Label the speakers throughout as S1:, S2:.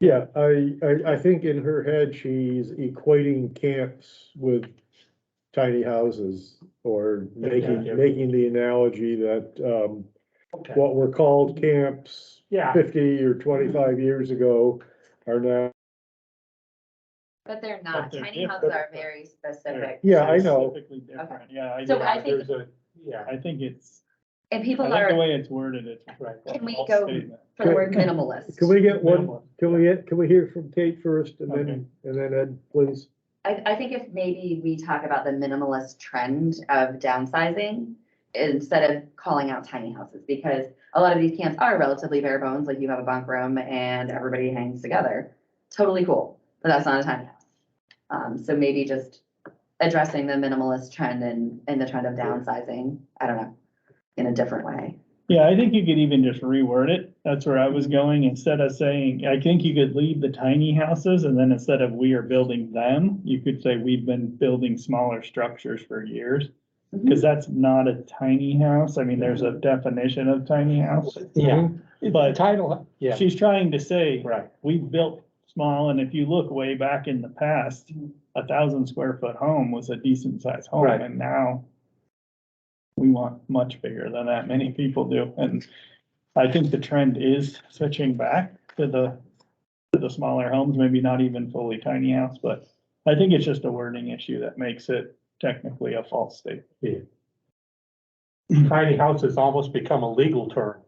S1: Yeah, I, I, I think in her head, she's equating camps with tiny houses or
S2: Yeah.
S1: making, making the analogy that, um,
S2: Okay.
S1: what were called camps
S2: Yeah,
S1: fifty or twenty-five years ago are now,
S3: But they're not,
S2: they're
S3: tiny houses are
S2: different.
S3: very specific,
S1: Yeah, I know.
S4: Specifically different, yeah. I
S3: So
S4: do.
S3: I think-
S4: There's a-
S2: yeah,
S4: I think it's,
S3: and
S4: I
S3: people
S4: think the
S3: are
S4: way it's worded, it's.
S2: right.
S3: Can we
S4: false
S3: go-
S4: statement.
S3: for the word minimalist.
S1: can we get one,
S2: Minimal.
S1: can we, get- can we hear from Kate first and
S4: Okay.
S1: then, and then Ed, please?
S3: I, I think if maybe we talk about the minimalist trend of downsizing instead of calling out tiny houses, because a lot of these camps are relatively bare bones, like you have a bunk room and everybody hangs together. Totally cool, but that's not a tiny house. Um, so maybe just addressing the minimalist trend and, and the trend of downsizing, I don't know, in a different way.
S4: Yeah, I think you could even just reword it. That's where I was going. Instead of saying, I think you could leave the tiny houses and then instead of we are building them, you could say we've been building smaller structures for years.
S2: Mm-hmm.
S4: Cause that's not a tiny house. I mean, there's a definition of tiny house.
S2: Yeah,
S4: But-
S2: but title, yeah,
S4: She's trying to say,
S2: right,
S4: we built small, and if you look way back in the past, a thousand square foot home was a decent sized home,
S2: Right.
S4: and now we want much bigger than that, many people do, and I think the trend is switching back to the, to the smaller homes, maybe not even fully tiny house, but I think it's just a wording issue that makes it technically a false statement.
S2: tiny house has almost become a legal term.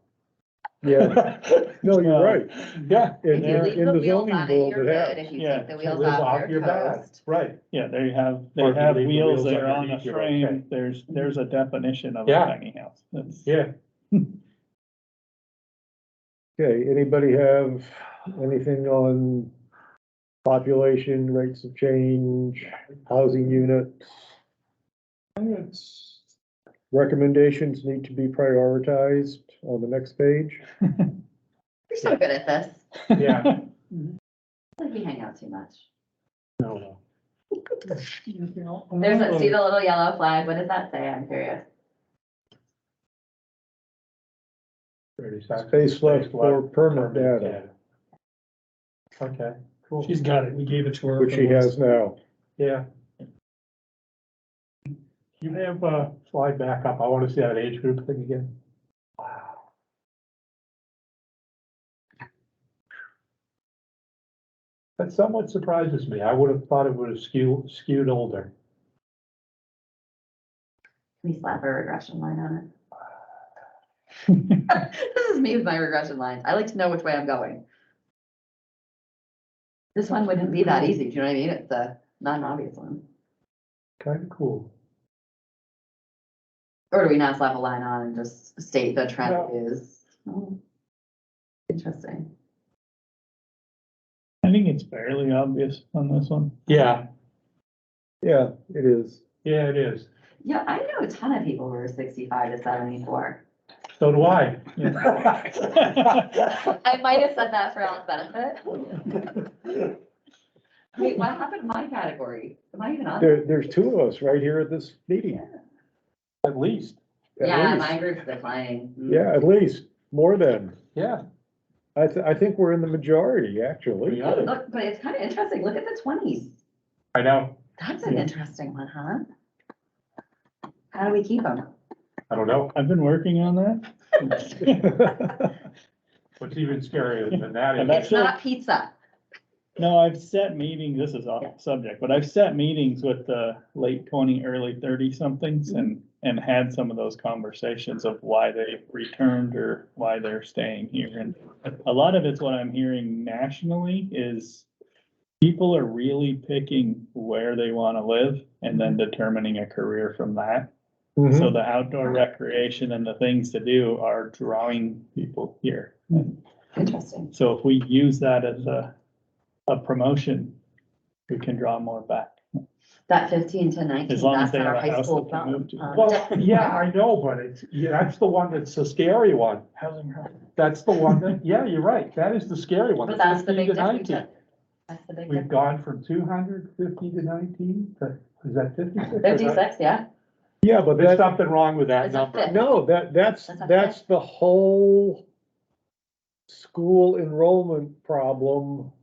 S1: Yeah, no, you're right.
S2: Yeah.
S1: In,
S3: If you leave
S1: in
S3: the
S1: the
S3: wheels
S1: zoning
S3: on it,
S1: board,
S3: you're
S1: it
S3: good. If
S1: has.
S3: you
S4: Yeah,
S3: take the
S2: Lives
S3: wheels off,
S2: your
S3: you're
S2: back,
S3: toast.
S2: Right,
S4: Yeah, they have,
S2: Or
S4: they
S2: if you
S4: have
S2: leave the
S4: wheels
S2: wheels
S4: that are on a
S2: underneath, you're okay.
S4: frame, there's, there's a definition of a
S2: Yeah.
S4: tiny house. That's-
S2: yeah.
S1: Okay, anybody have anything on population, rates of change, housing units? Recommendations need to be prioritized on the next page.
S3: You're so good at this.
S2: Yeah.
S3: I think we hang out too much.
S2: No, no.
S3: There's, a- see the little yellow flag? What does that say? I'm curious.
S2: Thirty seconds.
S1: Space left for permit
S2: Permit
S1: data,
S2: data. Okay, cool,
S5: She's got it. We gave it to her.
S1: which she has now.
S2: yeah. You have, uh, slide back up, I wanna see that age group thing again. Wow. That somewhat surprises me, I would have thought it would have skewed, skewed older.
S3: Can we slap a regression line on it? This is me with my regression lines. I like to know which way I'm going. This one wouldn't be that easy. Do you know what I mean? It's a not an obvious one.
S2: Kind of cool.
S3: Or do we not slap a line on and just state the trend
S2: No.
S3: is? Hmm. Interesting.
S4: I think it's fairly obvious on this one.
S2: Yeah,
S1: Yeah, it is.
S2: yeah, it is.
S3: Yeah, I know a ton of people who are sixty-five to seventy-four.
S2: So do I.
S3: I might have said that for Alan's benefit. Wait, what happened to my category? Am I even on?
S1: There, there's two of us right here at this meeting.
S2: At least,
S1: at
S3: Yeah,
S1: least.
S3: my group's declining. Mm.
S1: Yeah, at least, more than.
S2: yeah.
S1: I, th- I think we're in the majority, actually.
S2: We are.
S3: Look, but it's kind of interesting. Look at the twenties.
S2: I know,
S3: That's an interesting one, huh? How do we keep them?
S2: I don't know,
S4: I've been working on that.
S1: Mm-hmm.
S2: what's even scarier than that
S4: And
S2: is,
S4: that's-
S3: It's not pizza.
S4: No, I've set meetings, this is off subject, but I've set meetings with the late twenty, early thirty somethings and, and had some of those conversations of why they returned or why they're staying here. And a lot of it's what I'm hearing nationally is people are really picking where they want to live and then determining a career from that.
S1: Mhm.
S4: So the outdoor recreation and the things to do are drawing people here.
S3: Interesting.
S4: So if we use that as a, a promotion, we can draw more back.
S3: That fifteen to nineteen,
S4: As long as
S3: that's
S4: they
S3: not our
S4: have a
S3: high
S4: house
S3: school.
S4: that they move to.
S3: um,
S2: well, yeah, I know, but it's, yeah, that's the one that's the scary one.
S4: Housing. product.
S2: That's the one that, yeah, you're right, that is the scary one.
S3: But that's the big
S2: 15 to
S3: difference.
S2: 19.
S3: That's the big
S2: We've
S3: difference.
S2: gone from two hundred fifty to nineteen, to, is that fifty-six?
S3: Fifty-six, yeah.
S1: Yeah, but
S2: There's
S1: that,
S2: something wrong with that
S3: It's a
S2: number.
S3: fifth.
S1: No, that, that's,
S3: That's not
S1: that's the whole school enrollment problem